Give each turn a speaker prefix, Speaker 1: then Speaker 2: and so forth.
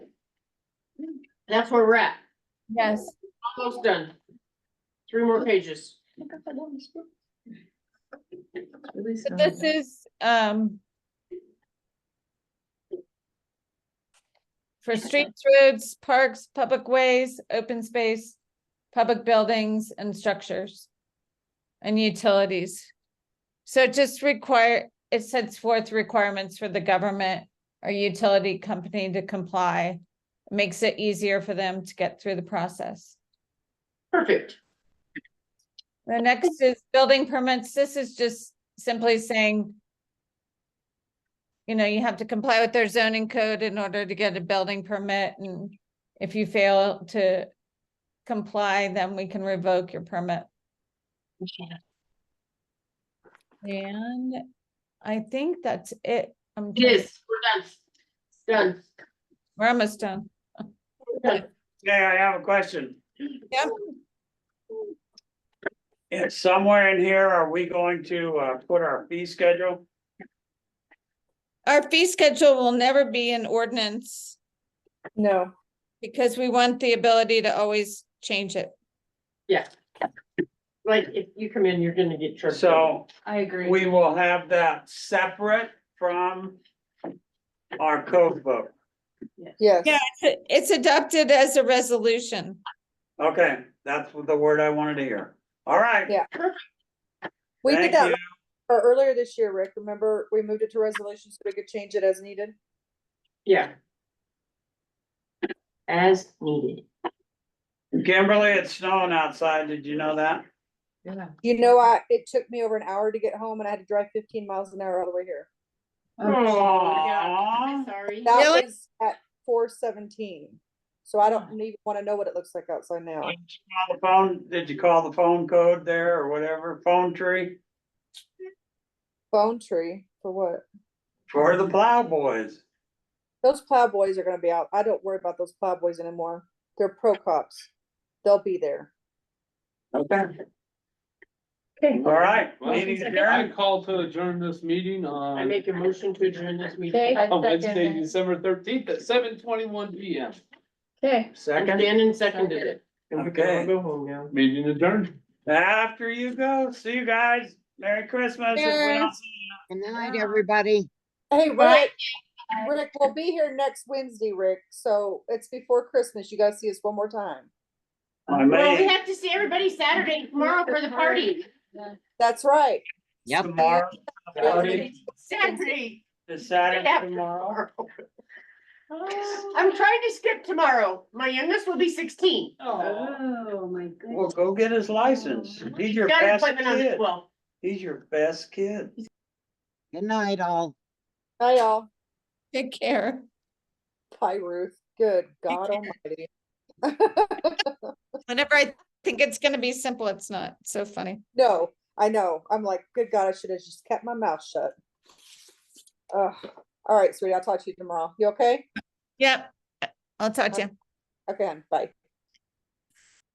Speaker 1: That's where we're at.
Speaker 2: Yes.
Speaker 1: Almost done. Three more pages.
Speaker 2: So this is, um. For streets, roads, parks, public ways, open space, public buildings and structures. And utilities. So it just require, it sets forth requirements for the government or utility company to comply. Makes it easier for them to get through the process.
Speaker 1: Perfect.
Speaker 2: The next is building permits. This is just simply saying. You know, you have to comply with their zoning code in order to get a building permit and if you fail to. Comply, then we can revoke your permit. And I think that's it. I'm
Speaker 1: It
Speaker 2: trying-
Speaker 1: is. We're done. Done.
Speaker 2: We're almost done.
Speaker 3: Yeah, I have a question.
Speaker 2: Yep.
Speaker 3: It's somewhere in here, are we going to uh put our fee schedule?
Speaker 2: Our fee schedule will never be an ordinance
Speaker 4: No,
Speaker 2: because we want the ability to always change it.
Speaker 1: Yeah. Like, if you come in, you're gonna get tripped. up.
Speaker 3: So
Speaker 4: I agree.
Speaker 3: we will have that separate from our code book.
Speaker 4: Yes.
Speaker 2: Yeah, it's- it's adopted as a resolution.
Speaker 3: Okay, that's what the word I wanted to hear. All right.
Speaker 4: Yeah. We
Speaker 3: thank
Speaker 4: did that
Speaker 3: you.
Speaker 4: or earlier this year, Rick. Remember, we moved it to resolution so we could change it as needed.
Speaker 1: Yeah. As needed.
Speaker 3: Kimberly, it's snowing outside. Did you know that?
Speaker 1: Yeah.
Speaker 4: You know, I, it took me over an hour to get home and I had to drive fifteen miles an hour all the way here. Oh,
Speaker 5: Oh,
Speaker 3: Aw.
Speaker 1: Sorry.
Speaker 2: Really?
Speaker 4: That was at four seventeen. So I don't even want to know what it looks like outside now.
Speaker 3: Did you call the phone, did you call the phone code there or whatever, phone tree
Speaker 4: Phone tree for what?
Speaker 3: for the plow boys?
Speaker 4: Those plowboys are gonna be out. I don't worry about those plowboys anymore. They're pro cops. They'll be there.
Speaker 3: Okay.
Speaker 1: Okay.
Speaker 3: All right,
Speaker 6: Well,
Speaker 3: meeting
Speaker 6: I
Speaker 3: adjourned.
Speaker 6: call to adjourn this meeting
Speaker 1: I
Speaker 6: on
Speaker 1: make a motion to adjourn this meeting.
Speaker 6: on Wednesday, December thirteenth at seven twenty-one P M.
Speaker 3: Second,
Speaker 1: Shannon seconded it. And we can all
Speaker 3: Okay.
Speaker 1: Go home now.
Speaker 6: Meeting adjourned.
Speaker 3: after you go, see you guys. Merry Christmas. if we don't see you.
Speaker 7: Good night, everybody.
Speaker 4: Hey, Rick, Rick, we'll be here next Wednesday, Rick. So it's before Christmas. You guys see us one more time.
Speaker 3: I
Speaker 1: Well, we
Speaker 3: may,
Speaker 1: have to see everybody Saturday tomorrow for the party.
Speaker 4: That's right.
Speaker 7: Yep.
Speaker 3: tomorrow, Saturday,
Speaker 1: Saturday.
Speaker 3: is Saturday
Speaker 1: After
Speaker 3: tomorrow.
Speaker 1: I'm trying to skip tomorrow. My youngest will be sixteen.
Speaker 5: Oh, my
Speaker 3: Well,
Speaker 5: goodness.
Speaker 3: go get his license. He's your
Speaker 1: Got an
Speaker 3: best
Speaker 1: appointment on the
Speaker 3: kid.
Speaker 1: twelfth.
Speaker 3: He's your best kid.
Speaker 7: Good night, all.
Speaker 4: Hi, y'all.
Speaker 2: Take care.
Speaker 4: Bye, Ruth. Good God Almighty.
Speaker 2: Whenever I think it's gonna be simple, it's not. So funny.
Speaker 4: No, I know. I'm like, good God, I should have just kept my mouth shut. Ugh. all right, sweetie. I'll talk to you tomorrow. You okay?
Speaker 2: Yep. I'll talk to you.
Speaker 4: Okay, hon. bye.